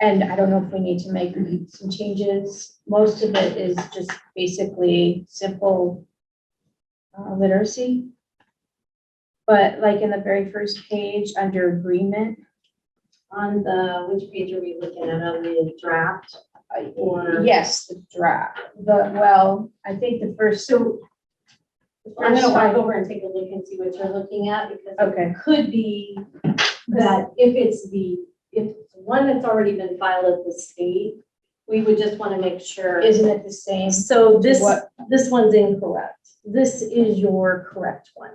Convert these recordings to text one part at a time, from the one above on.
And I don't know if we need to make Mm-hmm. some changes. Most of it is just basically simple uh, literacy. But like in the very first page, under agreement, On the, which page are we looking at on the draft? uh, Or- yes, the draft, but well, I think the first, so, I'm gonna First walk one. over and take a look and see what you're looking at because it okay, could be that if it's the, if it's one that's already been filed at the state, we would just want to make sure. isn't it the same? So this, What- this one's incorrect. This is your correct one.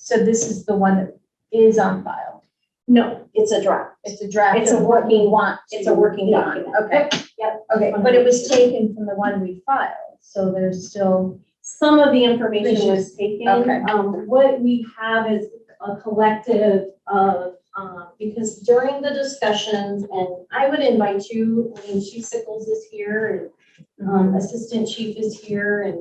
So this is the one that is on file. No, it's a draft. It's a draft. It's a of what we working- want. It's to a working be. document. Okay, Yep. okay, but it was taken from the one we filed, so there's still, Some of the information was taken. Okay. Um, what we have is a collective of, um, because during the discussions, and I would invite you, I mean, Chief Sickles is here, and, um, Assistant Chief is here, and,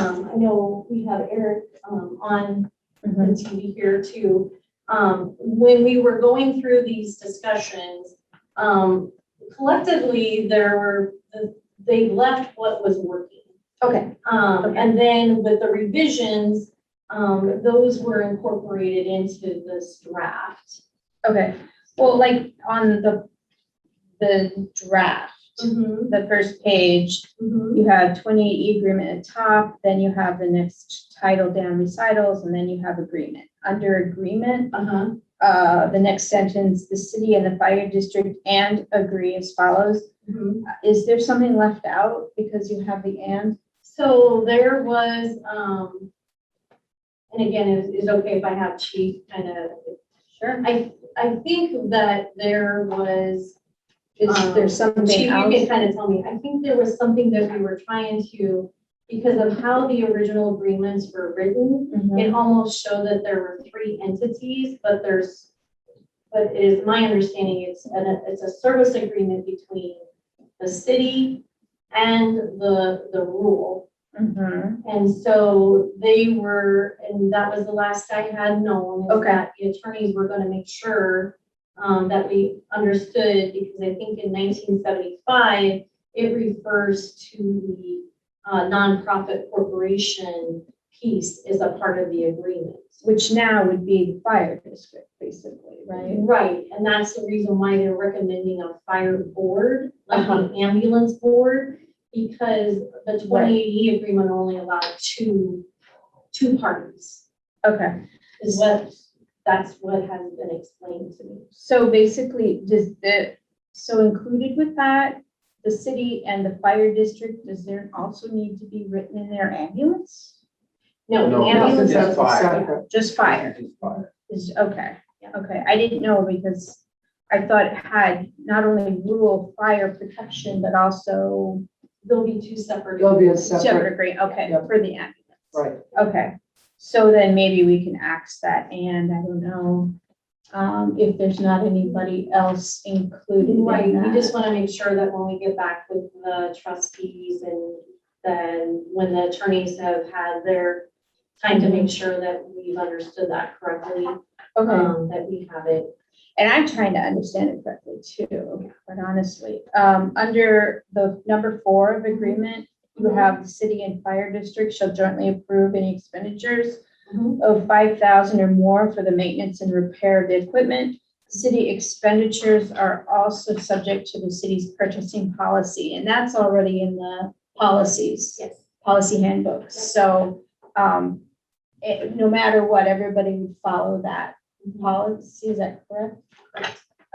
um, I know we have Eric, um, on Mhm. and to be here too. Um, when we were going through these discussions, um, collectively, there were, they left what was working. okay, Um, Okay. and then with the revisions, um, those were incorporated into this draft. okay. Well, like on the, the draft, the first page, Mhm. you have twenty E agreement at top, then you have the next title down recitals, and then you have agreement. Under agreement, Uh-huh. uh, the next sentence, the city and the fire district and agree as follows. Mhm. Is there something left out because you have the and? So there was, um, and again, is, is okay if I have Chief kind of, Sure. I, I think that there was, um, Is there Chief, something you can else? kind of tell me, I think there was something that we were trying to, because of how the original agreements were written, Mhm. it almost showed that there were three entities, but there's, but it is my understanding, it's, an- it's a service agreement between the city and the, the rural. Mhm. And so they were, and that was the last I had known, is Okay. that the attorneys were gonna make sure um, that we understood, because I think in nineteen seventy-five, it refers to the uh, nonprofit corporation piece is a part of the agreement. Which now would be the fire district, basically, right? Right, and that's the reason why they're recommending a fire board, like an Uh-huh. ambulance board, because the twenty eighty agreement only allowed two, two parties. Okay, is what, that's what has been explained to me. so basically, does the, so included with that, the city and the fire district, does there also need to be written in their ambulance? No, No, ambulance it's just was fire. separate. Just fire? It's fire. Is, okay, Yeah. okay, I didn't know because I thought it had not only rural fire protection, but also There'll be two separate. There'll be a separate separate, agree, okay, Yep. for the ambulance. right, Okay, so then maybe we can ax that and I don't know, um, if there's not anybody else included in Right, we that. just want to make sure that when we get back with the trustees and then when the attorneys have had their time to make sure that we've understood that correctly, Okay, um, that we have it. and I'm trying to understand it correctly too, but honestly, um, under the number four of agreement, you have the city and fire district shall jointly approve any expenditures Mm-hmm. of five thousand or more for the maintenance and repair of the equipment. City expenditures are also subject to the city's purchasing policy, and that's already in the policies, Yes. policy handbooks. So, um, it, no matter what, everybody would follow that policy, is that correct?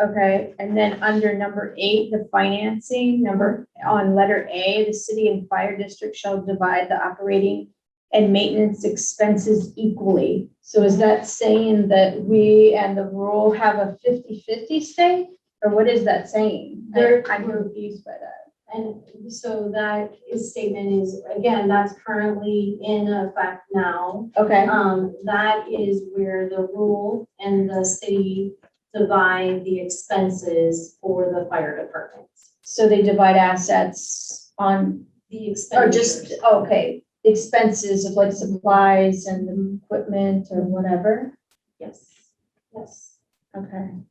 Okay, and then under number eight, the financing, number, on letter A, the city and fire district shall divide the operating and maintenance expenses equally. So is that saying that we and the rural have a 50-50 stake? Or what is that saying? I- There- I'm confused by that. And so that is statement is, again, that's currently in effect now. Okay, Um, that is where the rule and the city divide the expenses for the fire department. so they divide assets on, The or just, expenditures. okay, expenses of like supplies and equipment or whatever? Yes, yes. Okay.